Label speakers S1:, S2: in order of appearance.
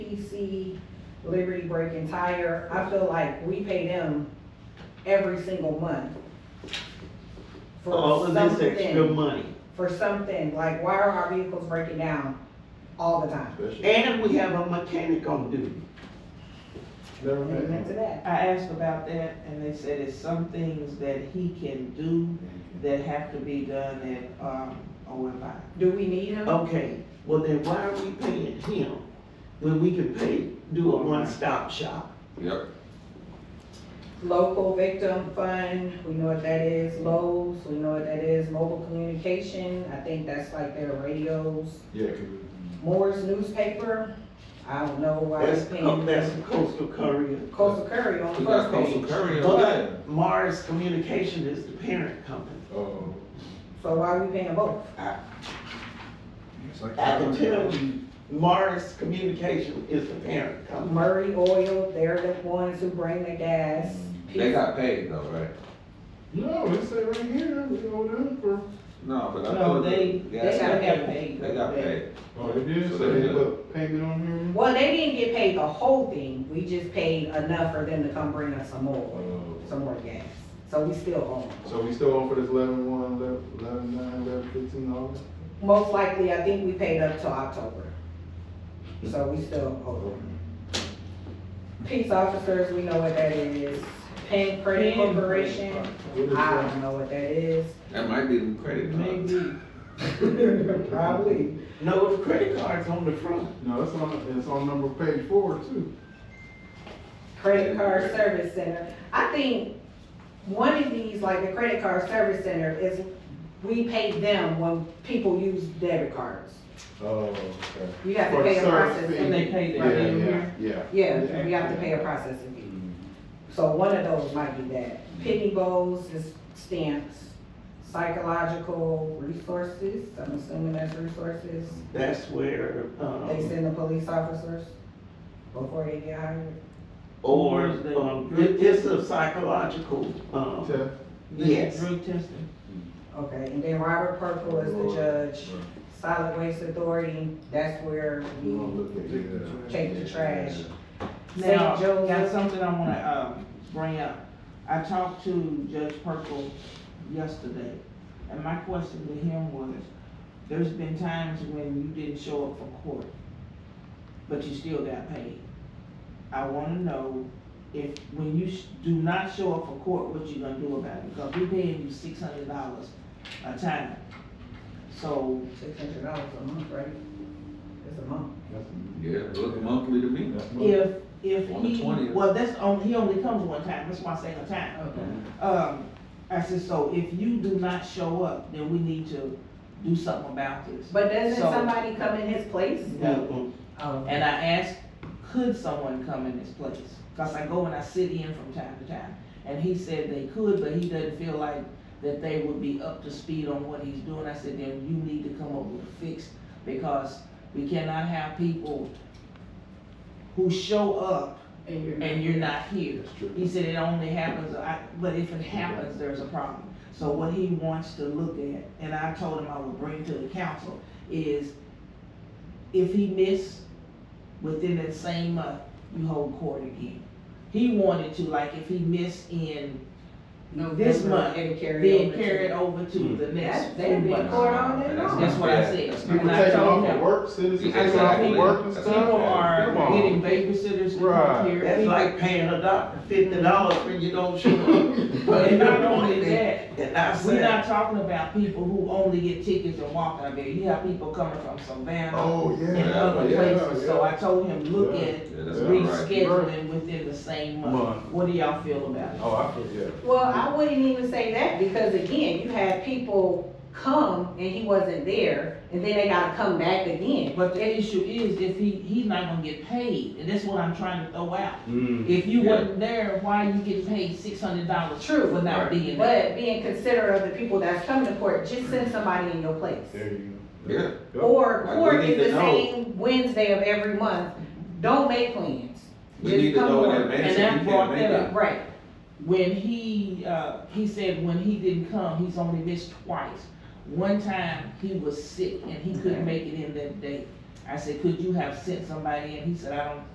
S1: CDC, Liberty Break and Tire, I feel like we pay them every single month.
S2: For
S1: for
S2: all of this extra
S1: something-
S2: money.
S1: For something, like why are our vehicles breaking down all the time?
S3: Especially
S2: And we have a mechanic on duty.
S3: never
S1: Amen to
S3: met.
S1: that.
S4: I asked about that and they said it's some things that he can do that have to be done at, um, OMI.
S1: Do we need
S2: Oh.
S1: him?
S2: Okay, well then why are we paying him when we can pay, do a one-stop shop?
S5: Yep,
S1: Local Victim Fund, we know what that is, Lowe's, we know what that is, Mobile Communication, I think that's like their radios.
S3: Yeah,
S1: Moore's Newspaper, I don't know why
S2: That's,
S1: it's
S2: co-
S1: paying.
S2: that's Coastal Courier.
S1: Coastal Curry on
S5: we
S1: the
S5: got
S1: first
S5: Coastal
S1: page.
S5: Courier.
S2: But Mars Communication is the parent company.
S3: oh.
S1: So why are we paying both?
S2: I can tell you, Mars Communication is the parent company.
S1: Murray Oil, they're the ones who bring the gas.
S5: They got paid though, right?
S3: No, it say right here, we owe them for.
S5: No, but I.
S4: No,
S5: thought
S4: they,
S5: that-
S4: they
S5: yeah,
S4: got
S1: paid.
S4: paid.
S5: They got paid.
S3: Oh, it did
S5: So
S3: say,
S5: they-
S3: look, payment on here.
S1: Well, they didn't get paid the whole thing, we just paid enough for them to come bring us some more,
S3: Oh.
S1: some more gas. So we still owe them.
S3: So we still on for this eleven one, eleven, eleven nine, eleven fifteen, all that?
S1: Most likely, I think we paid up till October. So we still owe them. Peace officers, we know what that is. Penn Credit
S4: Penn.
S1: Corporation,
S3: What is
S1: I
S3: that?
S1: don't know what that is.
S5: That might be the credit card.
S4: Maybe,
S1: Probably.
S2: No, the credit card's on the front.
S3: No, it's on, it's on number page four too.
S1: Credit Card Service Center. I think one of these, like the Credit Card Service Center, is we pay them when people use debit cards.
S3: Oh, okay.
S1: You have to
S3: For the
S1: pay a
S3: service
S1: processing.
S4: And they
S1: fee.
S4: paid
S3: Yeah,
S4: it.
S3: yeah, yeah.
S1: Yeah, we have to pay a processing fee.
S3: Mm.
S1: So one of those might be that. Penny bowls is stamps, psychological resources, I'm assuming that's resources.
S2: That's where,
S1: They
S2: um,
S1: send the police officers before they get hired.
S2: or, um, it- it's a psychological, um,
S3: Test.
S2: yes.
S4: Drug testing.
S1: Okay, and then Robert Purple is the judge. Solid Waste Authority, that's where
S3: You
S1: we,
S3: wanna look at it, yeah.
S1: Take the trash. St.
S4: Now, got
S1: Joseph.
S4: something I wanna, um, bring up. I talked to Judge Purple yesterday, and my question to him was, there's been times when you didn't show up for court, but you still got paid. I wanna know if, when you sh- do not show up for court, what you gonna do about it? Because we paying you six hundred dollars a time. So,
S1: six hundred dollars a month, right? It's a month.
S3: That's-
S5: Yeah, it looked monthly to me.
S3: that's money.
S4: if, if
S5: On the
S4: he,
S5: 20th.
S4: well, that's only, he only comes one time, that's why I say a time.
S1: Okay.
S4: Um, I said, so if you do not show up, then we need to do something about this.
S1: But doesn't
S4: So-
S1: somebody come in his place?
S2: No,
S1: Oh.
S4: And I asked, could someone come in this place? Cause I go and I sit in from time to time. And he said they could, but he doesn't feel like that they would be up to speed on what he's doing. I said, then you need to come up with a fix because we cannot have people who show up and you're not here.
S3: That's true.
S4: He said it only happens, I, but if it happens, there's a problem. So what he wants to look at, and I told him I would bring to the council, is if he missed within that same month, you hold court again. He wanted to, like, if he missed in, this month,
S1: And carry
S4: then
S1: over.
S4: carry it
S1: to-
S4: over to
S3: Hmm.
S4: the next
S1: That- they
S4: two
S1: be
S4: months.
S1: court all day long.
S4: That's what I said.
S5: That's
S3: People
S4: And I
S3: taking
S4: told
S3: off
S4: him-
S3: of work, citizens
S5: Exactly.
S3: taking off of work and
S5: That's
S3: stuff.
S4: People
S3: Come
S4: are
S3: on.
S4: getting babysitters to come
S3: Right.
S4: here.
S2: that's like paying a doctor fifty dollars when you don't show up. But
S4: And
S2: if
S4: not
S2: I
S4: only
S2: wanted that,
S4: that,
S2: and I
S4: We're
S2: said,
S4: not talking about people who only get tickets and walk out of there. You have people coming from Savannah
S3: Oh,
S4: and
S3: yeah.
S4: other
S3: yeah,
S4: places. So
S3: yeah.
S4: I told him, look
S3: Yeah.
S4: at
S5: Yeah, that's not right.
S4: rescheduling within the same month.
S3: Month.
S4: What do y'all feel about it?
S3: Oh, I forget.
S1: Well, I wouldn't even say that, because again, you had people come and he wasn't there, and then they gotta come back again.
S4: But the issue is if he, he's not gonna get paid, and that's what I'm trying to throw out.
S2: mm,
S4: If you
S5: Yeah.
S4: wasn't there, why you getting paid six hundred dollars
S1: True,
S4: for not
S5: right.
S4: being there?
S1: But being considerate of the people that's coming to court, just send somebody in your place.
S3: There you go.
S5: Yeah,
S3: Yep.
S1: Or
S5: Like, we
S1: court
S5: need
S1: is the
S5: to know.
S1: same Wednesday of every month, don't make plans.
S5: we
S1: Just
S5: need to
S1: come
S5: know in
S1: on.
S5: advance if
S4: And I
S5: you
S4: brought
S5: can't make
S4: that
S5: it.
S4: up.
S1: Right,
S4: When he, uh, he said when he didn't come, he's only missed twice. One time, he was sick and he couldn't make it in that day. I said, could you have sent somebody in? He said, I don't